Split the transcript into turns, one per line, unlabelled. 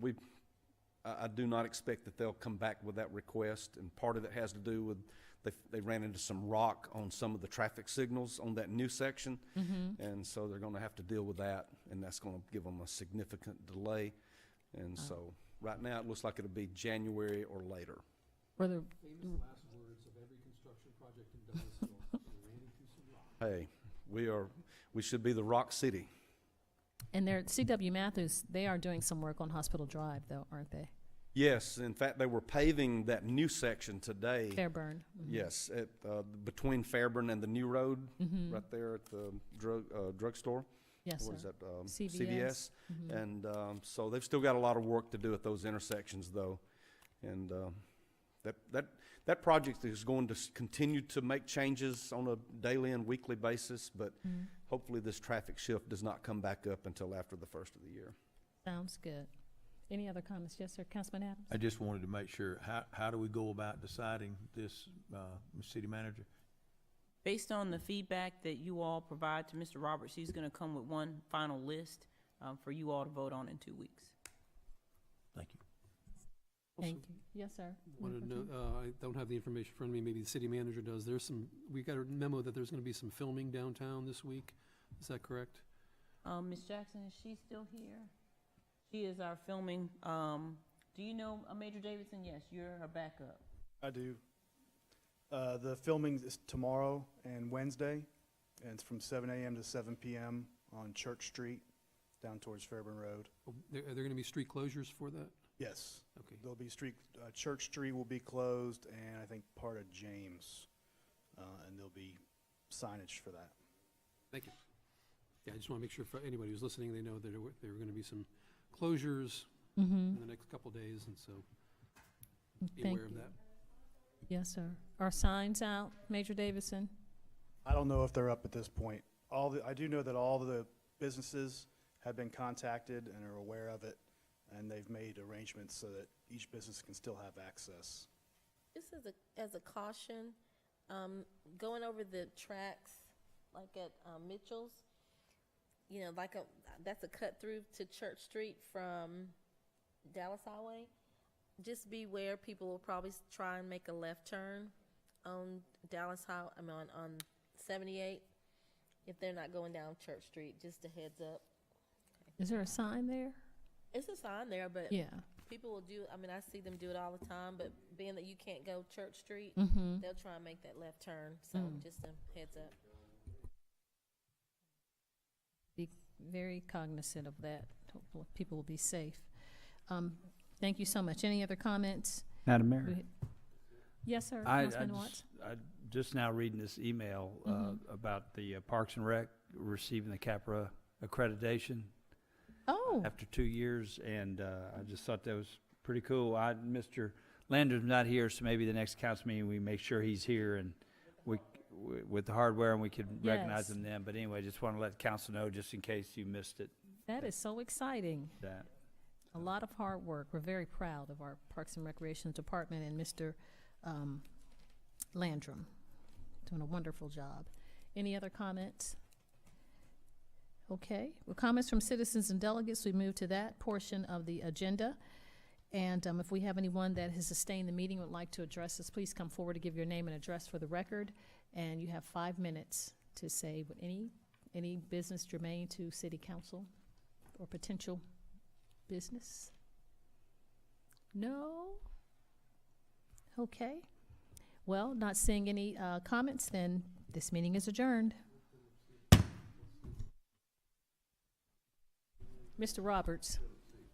we, I, I do not expect that they'll come back with that request, and part of it has to do with, they, they ran into some rock on some of the traffic signals on that new section.
Mm-hmm.
And so they're gonna have to deal with that, and that's gonna give them a significant delay. And so, right now, it looks like it'll be January or later.
Whether,
Famous last words of every construction project in Douglasville, "We ran into some rock.
Hey, we are, we should be the Rock City.
and they're, CW Matthews, they are doing some work on Hospital Drive though, aren't they?
Yes, in fact, they were paving that new section today.
Fairburn.
Yes, at, uh, between Fairburn and the new road, right there at the drug, uh, drugstore.
Mm-hmm. Yes,
What is
sir. Mm-hmm.
that? um,
CVS.
CVS. And, um, so they've still got a lot of work to do at those intersections though. And, um, that, that, that project is going to s- continue to make changes on a daily and weekly basis, but hopefully this traffic shift does not come back up until after the first of the year.
Sounds good. Any other comments? Yes, sir. Councilman Adams?
I just wanted to make sure, how, how do we go about deciding this, uh, Ms. city manager?
Based on the feedback that you all provide to Mr. Roberts, he's gonna come with one final list, um, for you all to vote on in two weeks.
Thank you.
Thank you. Yes, sir.
Wanted to know, uh, I don't have the information in front of me, maybe the city manager does. There's some, we got a memo that there's gonna be some filming downtown this week. Is that correct?
Um, Ms. Jackson, is she still here? She is our filming, um, do you know uh, Major Davidson? Yes, you're her backup.
I do. Uh, the filming is tomorrow and Wednesday, and it's from 7 a.m. to 7 p.m. on Church Street, down towards Fairburn Road.
Oh, There, are there gonna be street closures for that?
Yes,
Okay.
there'll be street. Uh, Church Street will be closed, and I think part of James, uh, and there'll be signage for that.
Thank you. Yeah, I just wanna make sure for anybody who's listening, they know that there were, there were gonna be some closures
Mm-hmm.
in the next couple days, and so be
Thank
aware of
you.
that.
uh,
Yes, sir. Are signs out, Major Davison?
I don't know if they're up at this point. All the, I do know that all the businesses have been contacted and are aware of it, and they've made arrangements so that each business can still have access.
Just as a, as a caution, um, going over the tracks, like at, um, Mitchell's, you know, like a, that's a cut through to Church Street from Dallas Highway. Just beware, people will probably s- try and make a left turn on Dallas High, I mean, on, on seventy-eight. If they're not going down Church Street, just a heads up.
Is there a sign there?
It's a sign there, but
Yeah.
people will do, I mean, I see them do it all the time, but being that you can't go Church Street,
Mm-hmm.
they'll try and make that left turn. So just a heads up.
Be very cognizant of that. Hopefully, people will be safe. Um, thank you so much. Any other comments?
Madam
Go
Mayor,
ahead. Yes, sir.
I, I
Councilman Watts?
just, I just now reading this email, uh,
Mm-hmm.
about the uh, Parks and Rec receiving the CAPRA accreditation
Oh,
after two years, and, uh, I just thought that was pretty cool. I, Mr. Lander's not here, so maybe the next council meeting, we make sure he's here and we, w- with the hardware and we could recognize
Yes.
him then. But anyway, just want to let council know, just in case you missed it,
that is so exciting.
that.
a lot of hard work. We're very proud of our Parks and Recreation Department and Mr. um, Landrum, doing a wonderful job. Any other comments? Okay, well, comments from citizens and delegates, we move to that portion of the agenda. And um, if we have anyone that has sustained the meeting would like to address us, please come forward to give your name and address for the record. And you have five minutes to say what any, any business germane to city council or potential business? No? Okay. Well, not seeing any uh, comments, then this meeting is adjourned. Mr. Roberts,